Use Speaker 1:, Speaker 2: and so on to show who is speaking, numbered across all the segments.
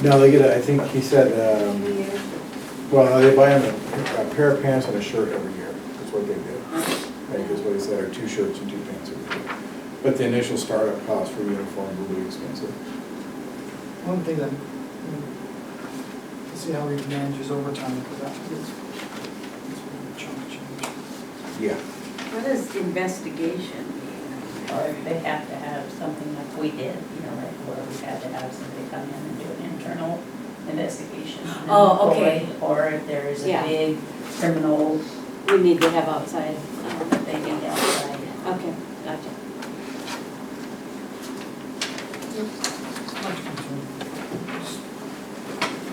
Speaker 1: No, they get, a- I think he said, um, well, they buy him a a pair of pants and a shirt every year, that's what they do. I think is what he said, or two shirts and two pants every year. But the initial startup cost for uniforms will be expensive.
Speaker 2: One thing that, you know, to see how he manages overtime, because that is, it's a big chunk of change.
Speaker 1: Yeah.
Speaker 3: What does investigation mean?
Speaker 4: Or if they have to have something like we did, you know, like where we had to have somebody come in and do an internal investigation. and
Speaker 3: Oh, okay.
Speaker 4: Or or if there is a
Speaker 3: Yeah.
Speaker 4: big criminal
Speaker 3: We need to have outside, um,
Speaker 4: that they need outside.
Speaker 3: okay, gotcha.
Speaker 2: It's not too much. Just-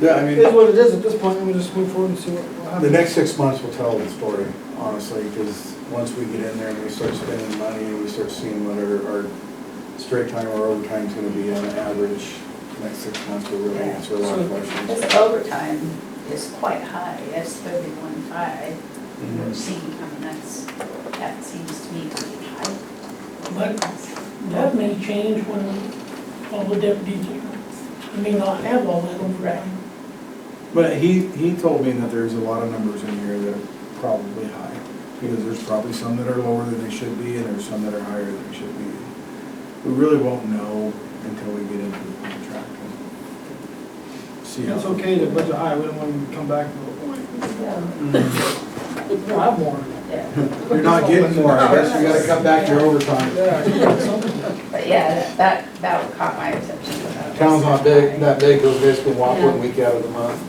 Speaker 1: Yeah, I
Speaker 2: It
Speaker 1: mean.
Speaker 2: is what it is at this point, and we'll just move forward and see what what happens.
Speaker 1: The next six months will tell the story, honestly, because once we get in there and we start spending money, and we start seeing what our, our straight time or overtime's gonna be on average, the next six months will really answer a lot of questions.
Speaker 4: This overtime is quite high, that's thirty-one five,
Speaker 1: Mhm.
Speaker 4: we're seeing, I mean, that's, that seems to me to be high.
Speaker 5: But that may change when all the deputies, you may not have all that overtime.
Speaker 1: But he, he told me that there's a lot of numbers in here that are probably high, because there's probably some that are lower than they should be, and there's some that are higher than they should be. We really won't know until we get into the contract and see how.
Speaker 2: It's okay to budget high, we don't want to come back
Speaker 1: Mm.
Speaker 2: and go, "We have more.
Speaker 4: Yeah,
Speaker 1: You're not getting more, I guess you gotta cut back your overtime.
Speaker 2: Yeah, something.
Speaker 4: but yeah, that, that caught my attention. about
Speaker 1: Town's
Speaker 4: this.
Speaker 1: not big, not big, goes basically walk one week out of the month.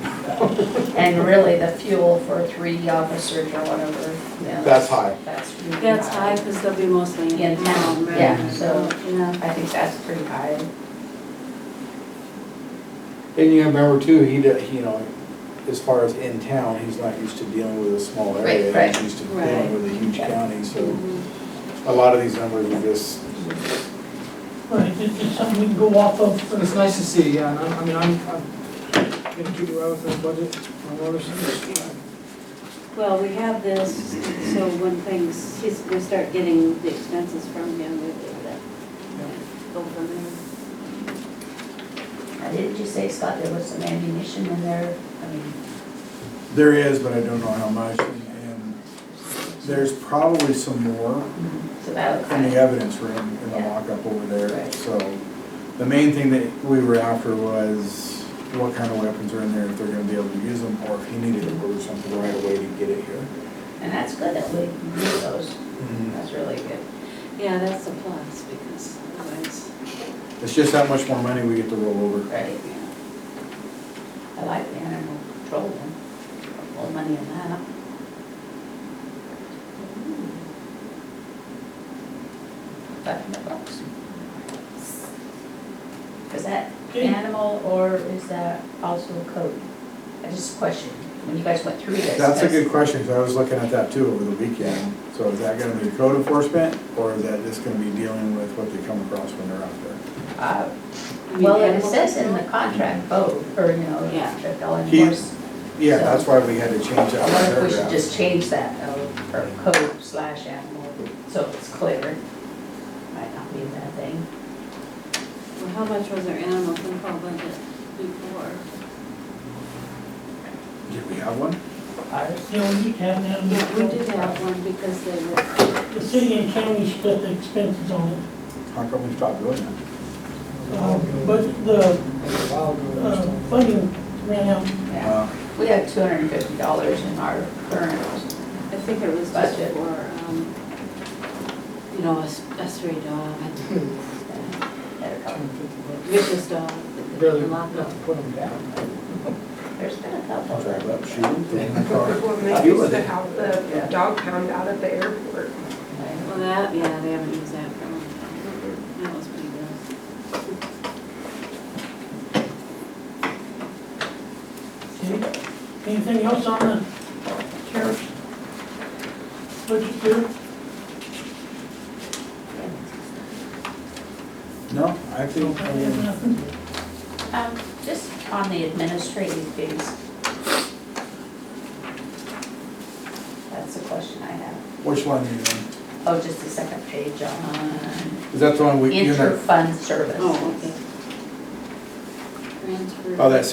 Speaker 4: And really, the fuel for three officers or whatever, yeah.
Speaker 1: That's high.
Speaker 4: That's really
Speaker 3: That's high, because they'll be mostly in
Speaker 4: In town,
Speaker 3: town, right?
Speaker 4: yeah, so-
Speaker 3: Yeah.
Speaker 4: I think that's pretty high.
Speaker 1: And you remember too, he, d- he, you know, as far as in town, he's not used to dealing with a small area.
Speaker 4: Right, right.
Speaker 1: He's used to
Speaker 3: Right.
Speaker 1: dealing with a huge
Speaker 4: Yeah.
Speaker 1: county, so
Speaker 3: Mhm.
Speaker 1: a lot of these numbers are just,
Speaker 5: Right, it's just something we can go off of
Speaker 2: But
Speaker 5: for
Speaker 2: it's nice to see, yeah, and I'm- I mean, I'm, I'm gonna keep it right with the budget, my water service.
Speaker 3: Well, we have this, so when things, he's, we start getting the expenses from him, we'll do that. Go from there.
Speaker 4: Now, didn't you say, Scott, there was some ammunition in there? I mean,
Speaker 1: there is, but I don't know how much. and- And there's probably some more
Speaker 4: it's about.
Speaker 1: in the evidence room in the
Speaker 4: Yeah.
Speaker 1: lockup over there.
Speaker 4: Right.
Speaker 1: So the main thing that we were after was what kind of weapons are in there, if they're gonna be able to use them, or if he needed to order something right away to get it here.
Speaker 4: And that's good that we knew those,
Speaker 1: Mm-hmm.
Speaker 4: that's really good.
Speaker 3: Yeah, that's a plus, because otherwise,
Speaker 1: It's just that much more money we get to roll over.
Speaker 4: Right.
Speaker 3: yeah.
Speaker 4: I like the animal control one, more money in that. Five hundred bucks. Is that
Speaker 5: Okay.
Speaker 4: animal or is that also code? I just questioned, when you guys went through this.
Speaker 1: That's a good question, because I was looking at that too over the weekend. So is that gonna be code enforcement, or is that just gonna be dealing with what they come across when they're out there?
Speaker 4: Uh,
Speaker 3: I mean,
Speaker 4: Well, it
Speaker 3: animal
Speaker 4: says in the
Speaker 3: control?
Speaker 4: contract code, or, you know,
Speaker 3: Yeah.
Speaker 4: that they'll
Speaker 1: He-
Speaker 4: enforce.
Speaker 1: Yeah, that's why we had to change
Speaker 4: I
Speaker 1: that
Speaker 4: wonder if we should
Speaker 1: paragraph.
Speaker 4: just change that, though, or code slash animal, so it's clear. Might not be a bad thing.
Speaker 3: Well, how much was our animal control budget before?
Speaker 1: Did we have one?
Speaker 4: Ours,
Speaker 5: You know, we have now.
Speaker 3: Yeah, we did have one because they were,
Speaker 5: Um, The city and county split the expenses on it.
Speaker 1: How come we stopped doing that?
Speaker 5: Uh, But the
Speaker 2: A while ago, I
Speaker 5: uh,
Speaker 2: was told.
Speaker 5: funding ran out.
Speaker 4: yeah.
Speaker 1: Uh,
Speaker 4: We have two hundred and fifty dollars in our current,
Speaker 3: I think it was just
Speaker 4: Budget.
Speaker 3: for, um, you know, a, s- a stray dog, a
Speaker 4: uh,
Speaker 3: vicious dog. that they
Speaker 2: Really,
Speaker 3: lock up.
Speaker 2: put them down.
Speaker 4: there's been a
Speaker 1: I'll drive
Speaker 4: couple.
Speaker 1: up, shoot, put it in the car.
Speaker 6: Well, they
Speaker 1: Deal
Speaker 6: used
Speaker 1: with
Speaker 6: to
Speaker 1: it.
Speaker 6: have the dog pound out at the airport.
Speaker 3: Well, that, yeah, they haven't used that for a long time. That was pretty good.
Speaker 5: Okay. Anything else on the sheriff's budget here?
Speaker 1: No, I think, I
Speaker 5: Nobody has
Speaker 1: mean,
Speaker 5: nothing?
Speaker 4: Um, just on the administrative fees. That's the question I have.
Speaker 1: which one are you in?
Speaker 4: Oh, just the second page on
Speaker 1: Is that the one we, you and I-
Speaker 4: interfund service.
Speaker 3: Oh, okay. Transfer.
Speaker 1: oh, that's